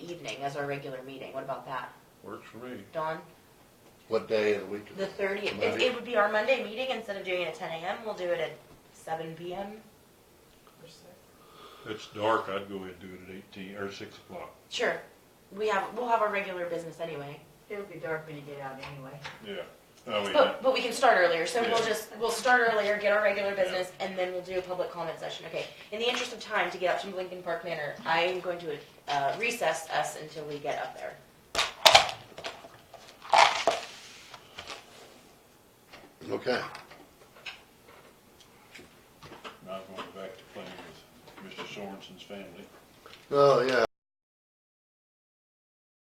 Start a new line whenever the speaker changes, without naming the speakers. meeting, as our regular meeting, what about that?
Works for me.
Dawn,
What day of the week?
the thirtieth, it,
Monday.
it would be our Monday meeting, instead of doing it at ten AM, we'll do it at seven PM. or so.
It's dark, I'd go ahead and do it at eighteen, or six o'clock.
Sure, we have, we'll have our regular business anyway,
It'll be dark when you get out anyway.
Yeah. Oh, yeah.
but, but we can start earlier, so we'll
Yeah.
just, we'll start earlier, get our regular business, and then we'll do a public comment session, okay? In the interest of time to get up to Lincoln Park Manor, I am going to uh, recess us until we get up there.
Okay,
Now going back to playing with Mr. Sorensen's family.
oh, yeah,